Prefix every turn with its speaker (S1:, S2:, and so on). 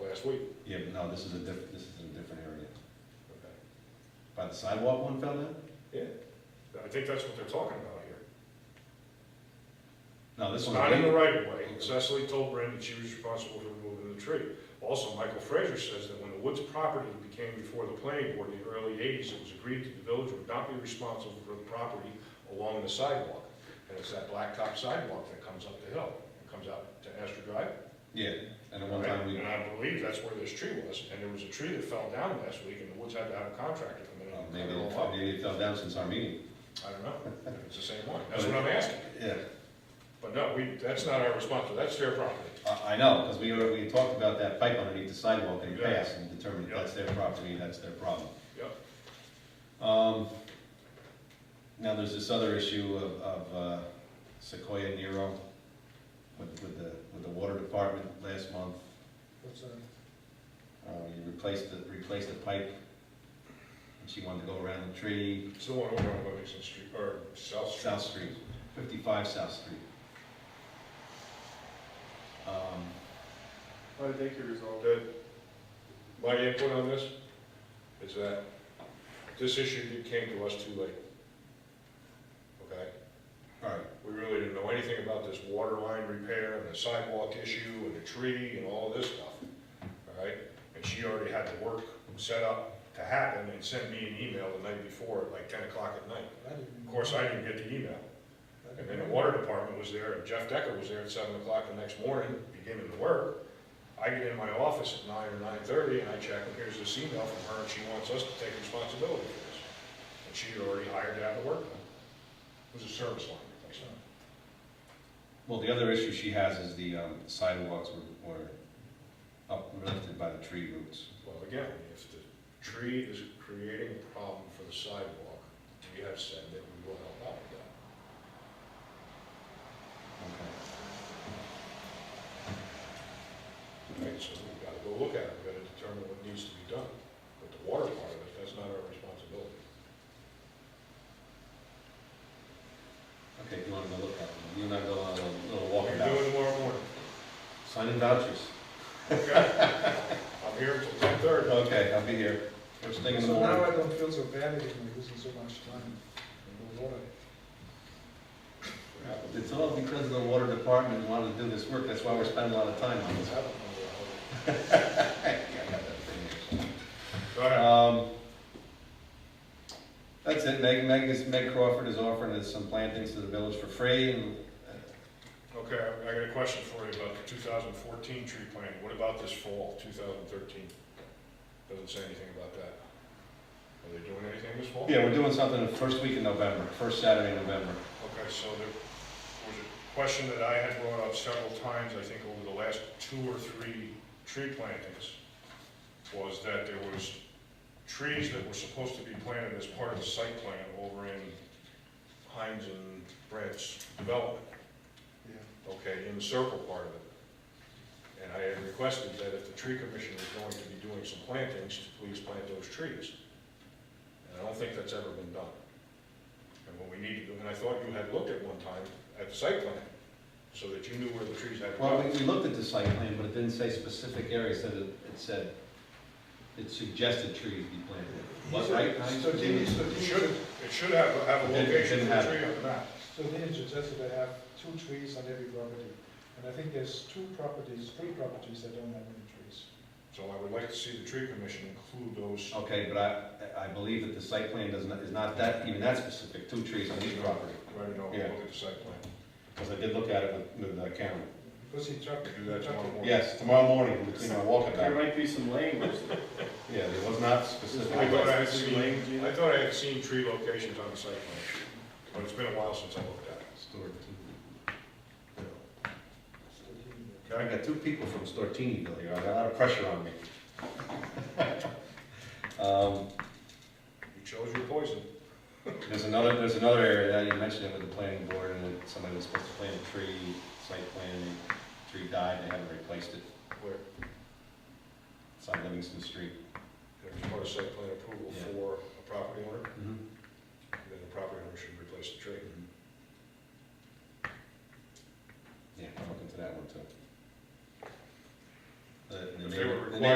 S1: last week.
S2: Yeah, but no, this is a diff, this is in a different area.
S1: Okay.
S2: By the sidewalk one fell down?
S1: I think that's what they're talking about here.
S2: No, this
S1: It's
S2: one.
S1: not in the right of way. Cecily told Brandon she was responsible for removing the tree. Also, Michael Fraser says that when the Woods property became before the planning board in the early eighties, it was agreed that the village would not be responsible for the property along the sidewalk. And it's that blacktop sidewalk that comes up the hill, and comes out to Astor Drive.
S2: Yeah, and at one
S1: Right,
S2: time we,
S1: And I believe that's where this tree was, and there was a tree that fell down last week, and the Woods had to have a contractor come in
S2: well,
S1: and
S2: um, maybe
S1: cut
S2: it
S1: it
S2: fell,
S1: all up.
S2: maybe it fell down since our meeting.
S1: I don't know, it's the same one, that's what I'm asking.
S2: Yeah,
S1: But no, we, that's not our responsibility, that's their property.
S2: I, I know, because we, were- we talked about that pipe underneath the sidewalk and it
S1: Yeah.
S2: passed and determined
S1: Yeah.
S2: that's their property, that's their problem.
S1: Yep.
S2: Um, now there's this other issue of, of uh, Sequoia Nero with, with the, with the water department last month.
S3: What's that?
S2: Uh, you replaced the, replaced the pipe, and she wanted to go around the tree,
S1: It's the one over on Livingston Street, or South Street.
S2: South Street, fifty-five South Street. Um,
S3: How did they get resolved?
S1: The- My input on this is that this issue came to us too late. Okay?
S2: all right,
S1: We really didn't know anything about this water line repair and the sidewalk issue and the tree and all this stuff, all right? And she already had the work set up to happen and sent me an email the night before at like ten o'clock at night. Of course, I didn't get the email. And then the water department was there, and Jeff Decker was there at seven o'clock the next morning, beginning to work. I get in my office at nine or nine-thirty, and I check, and here's this email from her, and she wants us to take responsibility for this. And she had already hired to have the work done. It was a service line replacement.
S2: well, the other issue she has is the um, sidewalks were, were uplifted by the tree roots.
S1: Well, again, if the tree is creating a problem for the sidewalk, we have said that we will help out with that.
S2: Okay.
S1: Right, so we've got to go look at it, we've got to determine what needs to be done. But the water part of it, that's not our responsibility.
S2: Okay, you wanna go look at them, you and I go on a little
S1: What
S2: walk
S1: you're
S2: about,
S1: doing tomorrow morning,
S2: signing vouchers.
S1: okay? I'm here until ten thirty.
S2: Okay, I'll be here, first thing in the
S3: So now
S2: morning.
S3: I don't feel so bad anymore, losing so much time in the water.
S2: It's all because the water department wanted to do this work, that's why we're spending a lot of time on
S3: I
S2: this.
S3: don't know what
S1: Go ahead.
S2: Um, That's it, Meg, Meg is, Meg Crawford is offering us some plantings to the village for free, and
S1: Okay, I- I got a question for you about the two thousand fourteen tree planting. What about this fall, two thousand thirteen? Doesn't say anything about that. Are they doing anything this fall?
S2: Yeah, we're doing something the first week in November, first Saturday in November.
S1: Okay, so there was a question that I had brought up several times, I think over the last two or three tree plantings, was that there was trees that were supposed to be planted as part of the site plan over in Heinz and Brad's development,
S3: Yeah.
S1: okay, in the circle part of it. And I had requested that if the tree commission was going to be doing some plantings, to please plant those trees. And I don't think that's ever been done. And what we needed, and I thought you had looked at one time at the site plan, so that you knew where the trees had to
S2: Well,
S1: go.
S2: we, we looked at the site plan, but it didn't say specific areas, that it, it said, it suggested trees be planted. What, right? Heinz?
S3: So Jimmy, so
S1: It
S3: Jimmy,
S1: should, it should have, have a
S2: It didn't-
S1: location
S2: didn't
S1: for a
S2: have
S1: tree on the map.
S3: so Jimmy suggested I have two trees on every property. And I think there's two properties, three properties that don't have any trees.
S1: So I would like to see the tree commission include those.
S2: Okay, but I, I believe that the site plan does not, is not that, even that specific, two trees on each property.
S1: Right, you know,
S2: Yeah.
S1: look at the site plan.
S2: Because I did look at it with, with uh, Cameron.
S3: Because he trucked.
S1: Do that tomorrow morning.
S2: Yes, tomorrow morning, between our
S4: There
S2: walkabout.
S4: might be some language.
S2: Yeah, it was not specific.
S1: I thought I had
S4: Specific
S1: seen,
S4: language in it?
S1: I thought I had seen tree locations on the site plan, but it's been a while since I looked at
S2: Stortini.
S1: it.
S3: So Jimmy-
S2: I
S1: Okay?
S2: got two people from Stortini here, I got a lot of pressure on me. Um,
S1: You chose your poison.
S2: There's another, there's another area that you mentioned it with the planning board and that somebody was supposed to plant a tree, site plan, the tree died, they haven't replaced it.
S1: Where,
S2: It's on Livingston Street.
S1: there's part of site plan approval
S2: Yeah.
S1: for a property owner, then the property owner should replace the tree.
S2: Mhm.